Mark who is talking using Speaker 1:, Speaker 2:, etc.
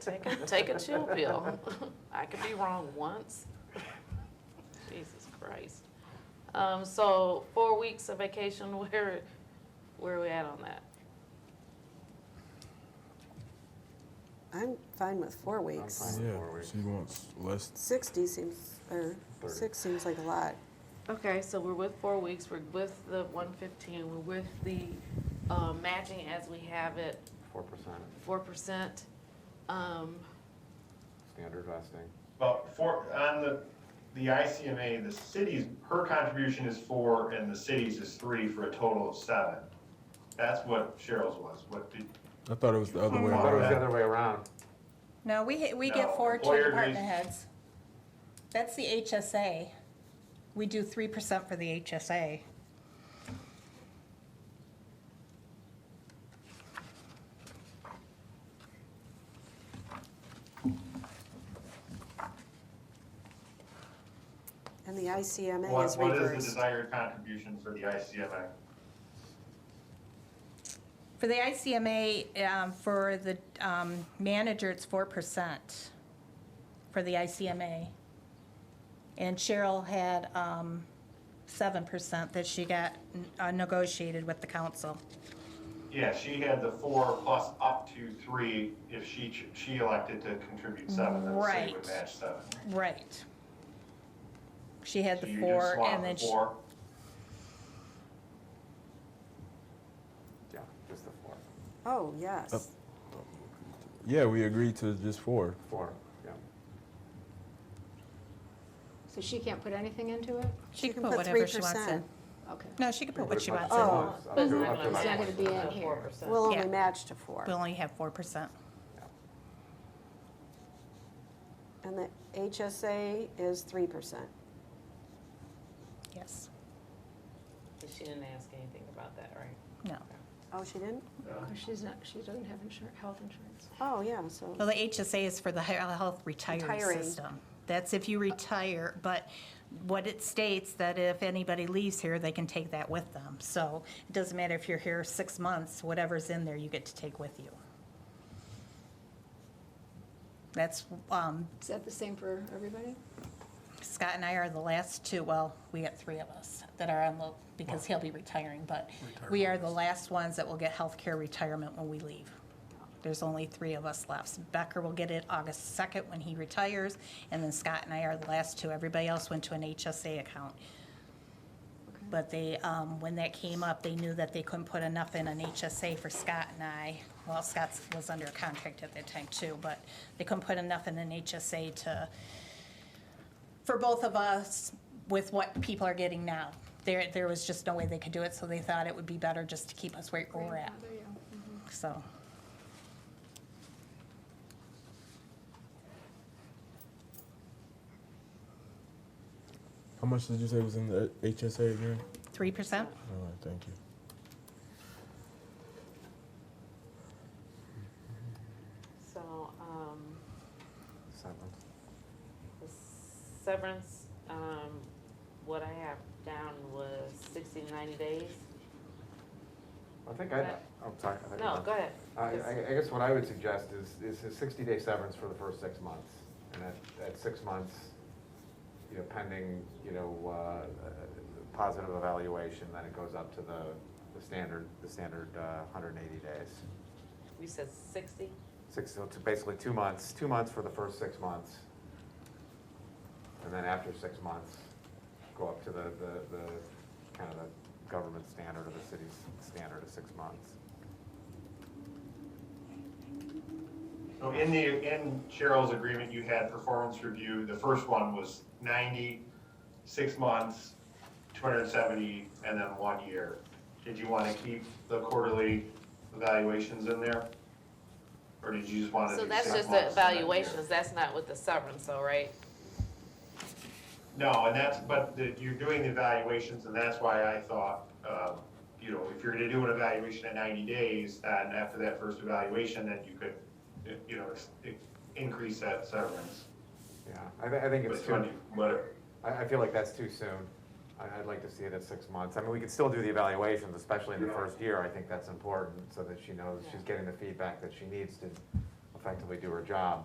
Speaker 1: Take a, take a chill pill. I could be wrong once. Jesus Christ. Um, so four weeks of vacation, where, where are we at on that?
Speaker 2: I'm fine with four
Speaker 3: I'm
Speaker 2: weeks.
Speaker 3: fine with four
Speaker 4: Yeah,
Speaker 3: weeks.
Speaker 4: she wants less.
Speaker 2: 60 seems, or
Speaker 3: Thirty.
Speaker 2: six seems like a lot.
Speaker 1: Okay, so we're with four weeks, we're with the one fifteen, we're with the, uh, matching as we have it,
Speaker 3: Four percent
Speaker 1: four percent. Um,
Speaker 3: standard vesting.
Speaker 5: Well, for, on the, the ICMA, the city's, her contribution is four and the city's is three for a total of seven. That's what Cheryl's was, what did,
Speaker 4: I thought it was the other way
Speaker 3: Hmm. I thought it was the
Speaker 4: around.
Speaker 3: other way around.
Speaker 6: No, we, we
Speaker 5: No,
Speaker 6: get four to
Speaker 5: employer
Speaker 6: department
Speaker 5: agrees.
Speaker 6: heads. That's the HSA. We do three percent for the HSA.
Speaker 2: And the ICMA
Speaker 5: what,
Speaker 2: is
Speaker 5: what is the
Speaker 2: reversed.
Speaker 5: desired contribution for the ICMA?
Speaker 6: For the ICMA, um, for the, um, manager, it's four percent for the ICMA. And Cheryl had, um, seven percent that she got uh, negotiated with the council.
Speaker 5: Yeah, she had the four plus up to three if she, ch- she elected to contribute seven, then the city would
Speaker 6: Right.
Speaker 5: match seven.
Speaker 6: Right. She had
Speaker 5: So
Speaker 6: the
Speaker 5: you just
Speaker 6: four
Speaker 5: swap
Speaker 6: and
Speaker 5: the
Speaker 6: then she.
Speaker 5: four.
Speaker 3: Yeah, just the four.
Speaker 2: Oh, yes.
Speaker 4: Yeah, we agreed to just four.
Speaker 3: Four, yeah.
Speaker 7: So she can't put anything into it?
Speaker 6: She can put whatever she wants
Speaker 2: 3%.
Speaker 6: in.
Speaker 7: Okay.
Speaker 6: No, she can put what she wants in.
Speaker 2: Oh.
Speaker 3: Up to- up to- up to
Speaker 7: It's not
Speaker 3: nine.
Speaker 7: gonna be in
Speaker 1: Four
Speaker 7: here.
Speaker 1: percent.
Speaker 2: We'll
Speaker 6: Yeah.
Speaker 2: only match to four.
Speaker 6: We only have four percent.
Speaker 2: And the HSA is 3%.
Speaker 6: Yes.
Speaker 1: But she didn't ask anything about that, right?
Speaker 6: No.
Speaker 2: Oh, she didn't?
Speaker 7: Because she's not, she doesn't have insurance, health insurance.
Speaker 2: Oh, yeah, so,
Speaker 6: Well, the HSA is for the he- health
Speaker 2: Retiring.
Speaker 6: retiree system. That's if you retire, but what it states that if anybody leaves here, they can take that with them. So it doesn't matter if you're here six months, whatever's in there, you get to take with you. That's, um,
Speaker 7: Is that the same for everybody?
Speaker 6: Scott and I are the last two, well, we got three of us that are on the, because he'll be retiring, but we are the last ones that will get healthcare retirement when we leave. There's only three of us left. Becker will get it August 2nd when he retires, and then Scott and I are the last two. Everybody else went to an HSA account.
Speaker 7: Okay.
Speaker 6: But they, um, when that came up, they knew that they couldn't put enough in an HSA for Scott and I. Well, Scott was under contract at that time too, but they couldn't put enough in an HSA to, for both of us with what people are getting now. There, there was just no way they could do it, so they thought it would be better just to keep us where we're at,
Speaker 7: Grandfather, yeah. Mhm.
Speaker 6: so.
Speaker 4: How much did you say was in the HSA again?
Speaker 6: Three percent?
Speaker 4: All right, thank you.
Speaker 1: So, um,
Speaker 3: Seven.
Speaker 1: the severance, um, what I have down was sixty to ninety days.
Speaker 3: I think I, I'm sorry. I think I-
Speaker 1: No, go ahead.
Speaker 3: I, I- I guess what I would suggest is, is a 60-day severance for the first six months. And at, at six months, you know, pending, you know, uh, positive evaluation, then it goes up to the, the standard, the standard uh, 180 days.
Speaker 1: We said sixty?
Speaker 3: Six, so it's basically two months, two months for the first six months. And then after six months, go up to the, the, the, kind of the government standard or the city's standard of six months.
Speaker 5: So in the, in Cheryl's agreement, you had performance review, the first one was 90, six months, 270, and then one year. Did you want to keep the quarterly evaluations in there? Or did you just want to
Speaker 1: So
Speaker 5: do
Speaker 1: that's
Speaker 5: six
Speaker 1: just the
Speaker 5: months and then a year?
Speaker 1: evaluations, that's not with the severance, though, right?
Speaker 5: No, and that's, but the- you're doing the evaluations, and that's why I thought, um, you know, if you're gonna do an evaluation at 90 days, and after that first evaluation, then you could, you know, ex- increase that severance.
Speaker 3: Yeah, I, thi- I think it's
Speaker 5: But
Speaker 3: too,
Speaker 5: whatever.
Speaker 3: I, I feel like that's too soon. I, I'd like to see it at six months. I mean, we could still do the evaluations, especially in the first year. I think that's important so that she knows she's getting the feedback that she needs to effectively do her job.